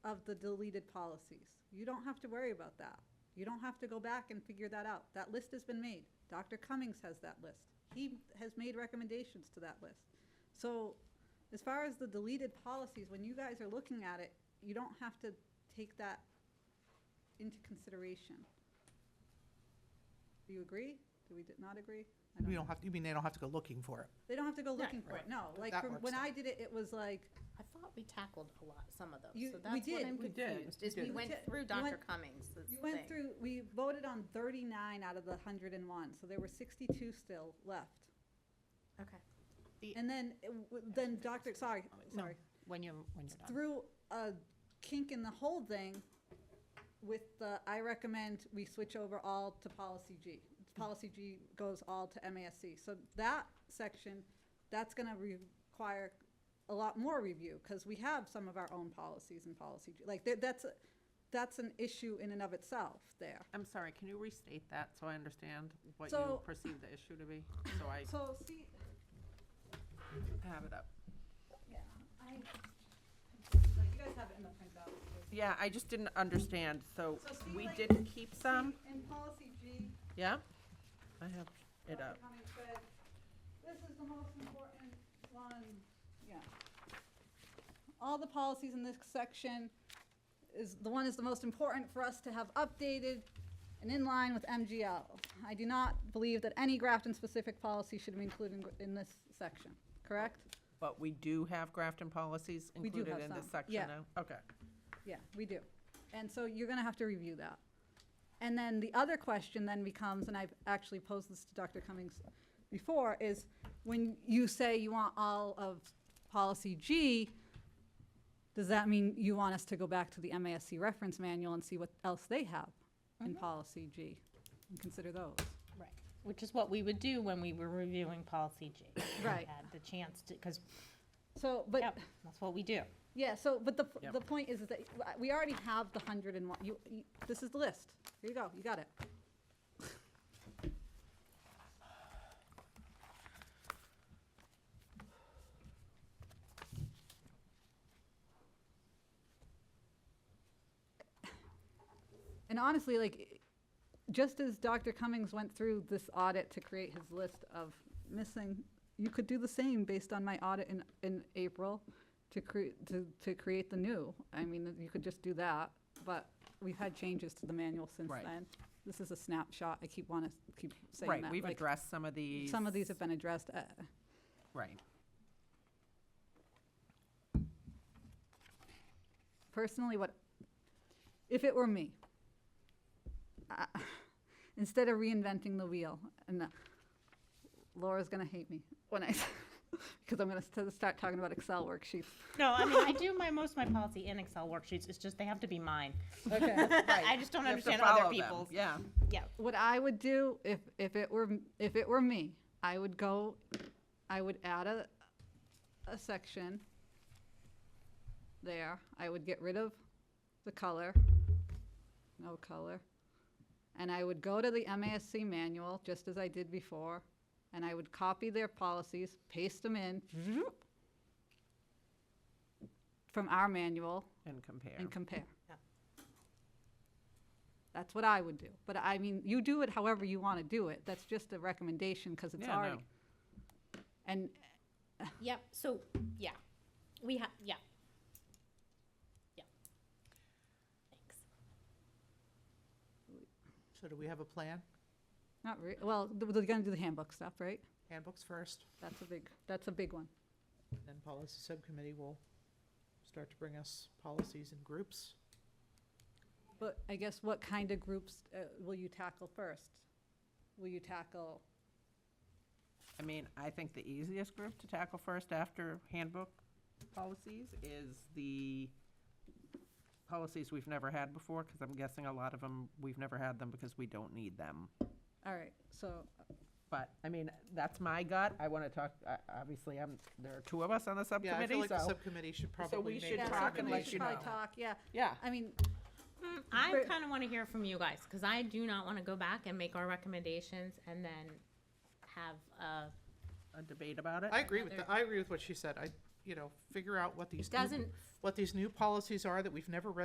of the deleted policies. You don't have to worry about that. You don't have to go back and figure that out. That list has been made. Dr. Cummings has that list. He has made recommendations to that list. So as far as the deleted policies, when you guys are looking at it, you don't have to take that into consideration. Do you agree? Do we d- not agree? I We know. don't have, to. you mean they don't have to go looking for it? They don't have to go looking Right, for it, right. no. Like, That from- works when out. I did it, it was like, I thought we tackled a lot, some of You- we those, so that's what did, I'm we did, confused, we is we did. We went did, we through Dr. went- Cummings, that's the You went thing. through, we voted on 39 out of the 101, so there were 62 still left. Okay. And then, it w- then Dr., sorry, sorry, When you're, when you're done. threw a kink in the whole thing with the, I recommend we switch over all to policy G. Policy G goes all to MASC. So that section, that's going to require a lot more review because we have some of our own policies in policy G. Like, that- that's, a- that's an issue in and of itself there. I'm sorry, can you restate that so I understand what So- you perceive the issue to be? So I So see, have it up. Yeah, I, like, you guys have it in the printout. Yeah, I just didn't understand, so So see, we like- did keep some, See, In policy G, yeah? I have it Dr. up. Cummings said, this is the most important one, yeah. All the policies in this section is, the one is the most important for us to have updated and in line with MGL. I do not believe that any Grafton-specific policy should be included in- in this section, correct? But we do have Grafton policies We do included have in this some, section yeah. now? Okay. Yeah, we do. And so you're going to have to review that. And then the other question then becomes, and I've actually posed this to Dr. Cummings before, is when you say you want all of policy G, does that mean you want us to go back to the MASC reference manual and see what else they have in policy G and consider those? Right. Which is what we would do when we were reviewing policy G. We Right. Had the chance to, because, So, but yep, that's what we do. Yeah, so, but the, Yep. the point is that we already have the hundred and one, you, you- this is the list. Here you go, you got it. And honestly, like, just as Dr. Cummings went through this audit to create his list of missing, you could do the same based on my audit in, in April to create, to, to create the new. I mean, you could just do that, but we've had changes to the manual since Right. then. This is a snapshot. I keep wanna, keep saying that. Right, we've like, addressed some of these. Some of these have been addressed. uh, Right. personally what if it were me I- instead of reinventing the wheel and uh, laura's going to hate me when i because i'm going to start talking about excel worksheets No, I mean, I do my, most of my policy in Excel worksheets, it's just they have to be mine. okay I just don't You have to understand follow other them, people's. Yeah. Yeah. what i would do if if it were if it were me i would go i would add a a section there i would get rid of the color no color. And I would go to the MASC manual, just as I did before, and I would copy their policies, paste them in from our manual And compare. and compare. Yep. That's what I would do. But I mean, you do it however you want to do it. That's just a recommendation because it's Yeah, already. no. And Yep, so, yeah, We have, yeah. Yeah. Thanks. So do we have a plan? not re, well, th- they're going to do the handbook stuff, right? Handbooks first, That's a big, that's a big one. then policy subcommittee will start to bring us policies in groups. But I guess what kind of groups uh, will you tackle first? Will you tackle, I mean, I think the easiest group to tackle first after handbook policies is the policies we've never had before, because I'm guessing a lot of them, we've never had them because we don't need them. all right, so, But, I mean, that's my gut. I want to talk, I- obviously, I'm, there are two of us on the Yeah, I feel subcommittee, like the so. subcommittee should so we probably make should yeah, talk recommendations. something we let should you probably know. talk, yeah. Yeah. I mean, Mm, I Right. kind of want to hear from you guys, because I do not want to go back and make our recommendations and then have uh, a, A debate about it. I agree with, the- I agree with what she said. I, you know, figure out what these, new- doesn't what these new policies are that we've never read